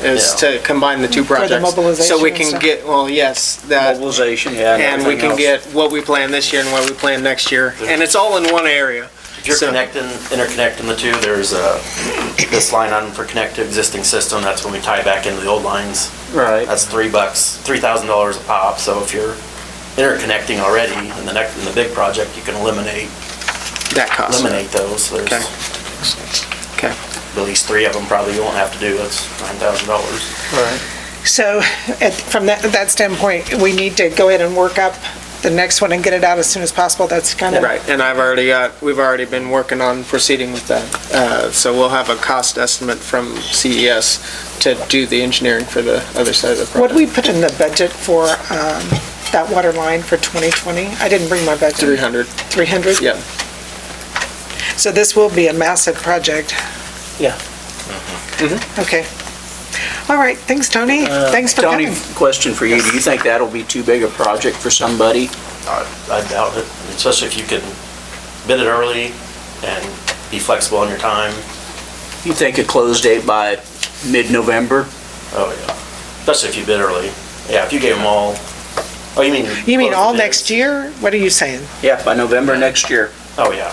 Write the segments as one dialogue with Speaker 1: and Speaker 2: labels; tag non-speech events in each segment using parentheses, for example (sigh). Speaker 1: is
Speaker 2: Yeah.
Speaker 1: to combine the two projects. So
Speaker 3: mobilization
Speaker 1: we
Speaker 3: and
Speaker 1: can
Speaker 3: stuff.
Speaker 1: get, well, yes, that,
Speaker 2: Mobilization, yeah.
Speaker 1: and we
Speaker 2: everything
Speaker 1: can
Speaker 2: else.
Speaker 1: get what we plan this year and what we plan next year. And it's all in one area.
Speaker 4: If you're
Speaker 1: So-
Speaker 4: connecting, interconnecting the two, there's uh this line item for connect to existing system, that's when we tie back into the old lines.
Speaker 2: Right.
Speaker 4: That's three bucks, three thousand dollars a pop, so if you're interconnecting already in the next, in the big project, you can eliminate,
Speaker 1: That cost.
Speaker 4: eliminate those. There's
Speaker 1: Okay.
Speaker 4: at
Speaker 1: Okay.
Speaker 4: least three of them probably you won't have to do, that's nine thousand dollars.
Speaker 3: So at- from that, that standpoint, we need to go ahead and work up the next one and get it out as soon as possible. That's kind of.
Speaker 1: Right, and I've already got, we've already been working on proceeding with that. Uh, So we'll have a cost estimate from CES to do the engineering for the other side of the
Speaker 3: What
Speaker 1: project.
Speaker 3: do we put in the budget for um, that water line for 2020? I didn't bring my budget.
Speaker 1: 300,
Speaker 3: 300?
Speaker 1: yeah.
Speaker 3: So this will be a massive project.
Speaker 2: Yeah.
Speaker 3: Okay. All right, thanks, Tony.
Speaker 4: Uh,
Speaker 3: Thanks for
Speaker 2: Uh, Tony,
Speaker 3: coming.
Speaker 2: question for you. Do you think that'll be too big a project for somebody?
Speaker 4: I doubt it, especially if you can bid it early and be flexible on your time.
Speaker 2: You think a close date by mid-November?
Speaker 4: Oh, yeah. Especially if you bid early. Yeah, if you gave them all, oh, you mean.
Speaker 3: You mean
Speaker 4: close the
Speaker 3: all
Speaker 4: bids?
Speaker 3: next year? What are you saying?
Speaker 2: Yeah, by November next year.
Speaker 4: Oh, yeah.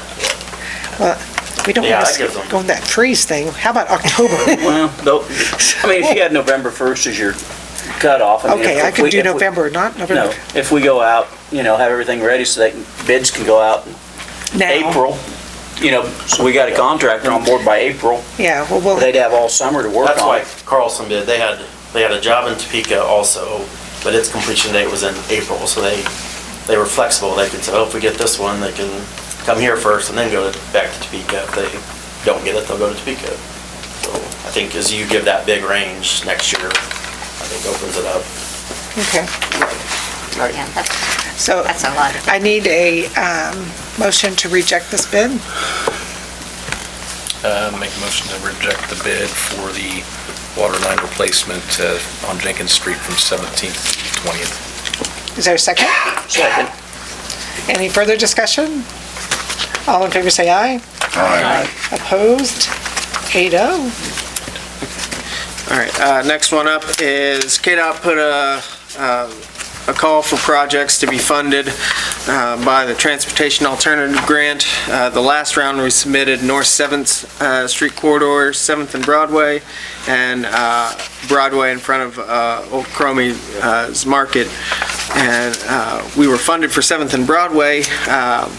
Speaker 3: We don't
Speaker 4: Yeah,
Speaker 3: want
Speaker 4: I give
Speaker 3: to
Speaker 4: them-
Speaker 3: go in that freeze thing. How
Speaker 4: (laughs)
Speaker 3: about October?
Speaker 2: Well, though, I mean, if you had November 1st as your cutoff. I mean,
Speaker 3: Okay,
Speaker 2: if
Speaker 3: I
Speaker 2: we-
Speaker 3: could do
Speaker 2: if we-
Speaker 3: November, not
Speaker 2: No,
Speaker 3: November.
Speaker 2: if we go out, you know, have everything ready so that bids can go out in
Speaker 3: Now.
Speaker 2: April, you know, so we got a contractor on board by April.
Speaker 3: Yeah, well, we'll.
Speaker 2: They'd have all summer to work
Speaker 4: That's
Speaker 2: on
Speaker 4: why
Speaker 2: it.
Speaker 4: Carlson bid. They had, they had a job in Topeka also, but its completion date was in April, so they, they were flexible. They could say, oh, if we get this one, they can come here first and then go to- back to Topeka. If they don't get it, they'll go to Topeka. So I think as you give that big range next year, I think opens it up.
Speaker 3: Okay,
Speaker 5: Yeah, that's,
Speaker 3: so
Speaker 5: that's a lot.
Speaker 3: I need a um, motion to reject this bid.
Speaker 6: Uh, Make a motion to reject the bid for the water line replacement uh, on Jenkins Street from 17th to 20th.
Speaker 3: Is there a second?
Speaker 2: Second.
Speaker 3: Any further discussion? All in favor, say aye. Aye. Opposed? Eight oh.
Speaker 1: All right, uh, next one up is KDOT put a, um, a call for projects to be funded uh, by the Transportation Alternative Grant. Uh, The last round, we submitted North 7th uh, Street Corridor, 7th and Broadway, and uh, Broadway in front of uh, Old Cromie's Market. And uh, we were funded for 7th and Broadway. Um,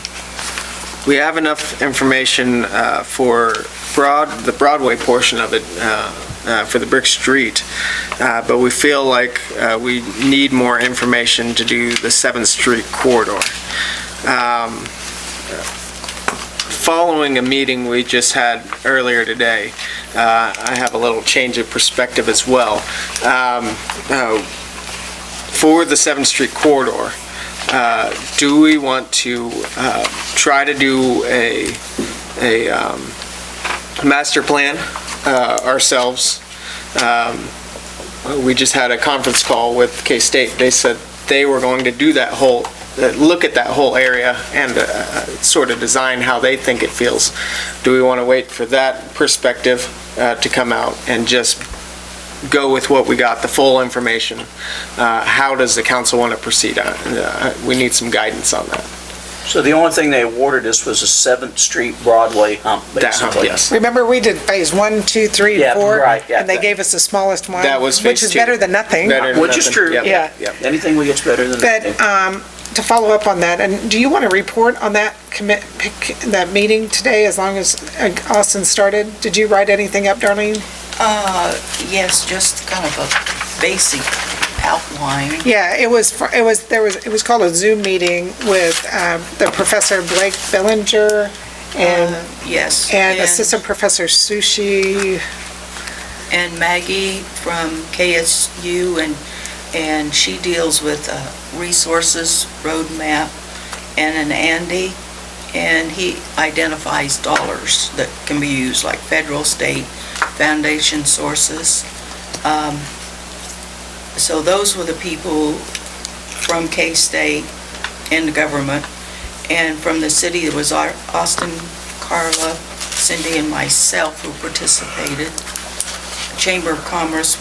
Speaker 1: We have enough information uh, for Broad, the Broadway portion of it, uh, uh, for the brick street, Uh, but we feel like uh, we need more information to do the 7th Street corridor. Um, Following a meeting we just had earlier today, uh, I have a little change of perspective as well. Um, uh, For the 7th Street corridor, uh, do we want to uh, try to do a, a um, master plan uh, ourselves. Um, We just had a conference call with K-State. They said they were going to do that whole, uh, look at that whole area and uh, sort of design how they think it feels. Do we want to wait for that perspective uh, to come out and just go with what we got, the full information? Uh, How does the council want to proceed on? it? Uh, We need some guidance on that.
Speaker 2: So the only thing they awarded us was a 7th Street Broadway hump,
Speaker 1: That, huh,
Speaker 2: basically.
Speaker 1: Yes.
Speaker 3: Remember, we did phase one, two, three,
Speaker 2: Yeah,
Speaker 3: and four?
Speaker 2: right, yeah.
Speaker 3: And they gave us the smallest one.
Speaker 1: That was
Speaker 3: Which
Speaker 1: phase
Speaker 3: is
Speaker 1: two.
Speaker 3: better than nothing.
Speaker 1: Better than
Speaker 2: Which is
Speaker 1: nothing.
Speaker 2: true.
Speaker 1: Yep,
Speaker 3: Yeah.
Speaker 1: yep.
Speaker 2: Anything we get's better than that.
Speaker 3: But um, to follow up on that, and do you want to report on that commit, pick- that meeting today, as long as uh, Austin started? Did you write anything up, Darlene?
Speaker 7: Uh, yes, just kind of a basic outline.
Speaker 3: Yeah, it was, fr- it was, there was, it was called a Zoom meeting with um, the Professor Blake Bellinger
Speaker 7: Uh,
Speaker 3: and,
Speaker 7: Yes.
Speaker 3: and Assistant Professor Sushi.
Speaker 7: And Maggie from KSU, and, and she deals with uh, resources, roadmap, and an Andy, and he identifies dollars that can be used, like federal, state, foundation sources. Um, So those were the people from K-State and the government, and from the city, it was Au- Austin, Carla, Cindy, and myself who participated. Chamber of Commerce